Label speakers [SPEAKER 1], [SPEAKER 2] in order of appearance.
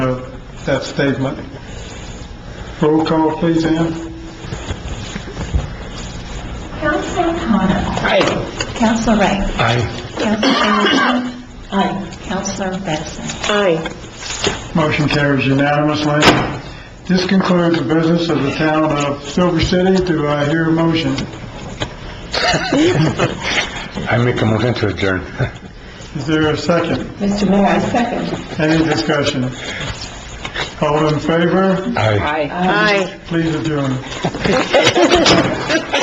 [SPEAKER 1] of that statement. Roll call, please, Ann.
[SPEAKER 2] Counselor O'Connor.
[SPEAKER 3] Aye.
[SPEAKER 2] Counselor Ray.
[SPEAKER 3] Aye.
[SPEAKER 2] Counselor Hamilton. Aye. Counselor Batson.
[SPEAKER 3] Aye.
[SPEAKER 1] Motion carries unanimously. This concludes the business of the town of Silver City. Do I hear a motion?
[SPEAKER 4] I make a motion to adjourn.
[SPEAKER 1] Is there a second?
[SPEAKER 2] Mr. Mayor, I second.
[SPEAKER 1] Any discussion? All in favor,
[SPEAKER 4] Aye.
[SPEAKER 3] Aye.
[SPEAKER 1] please adjourn.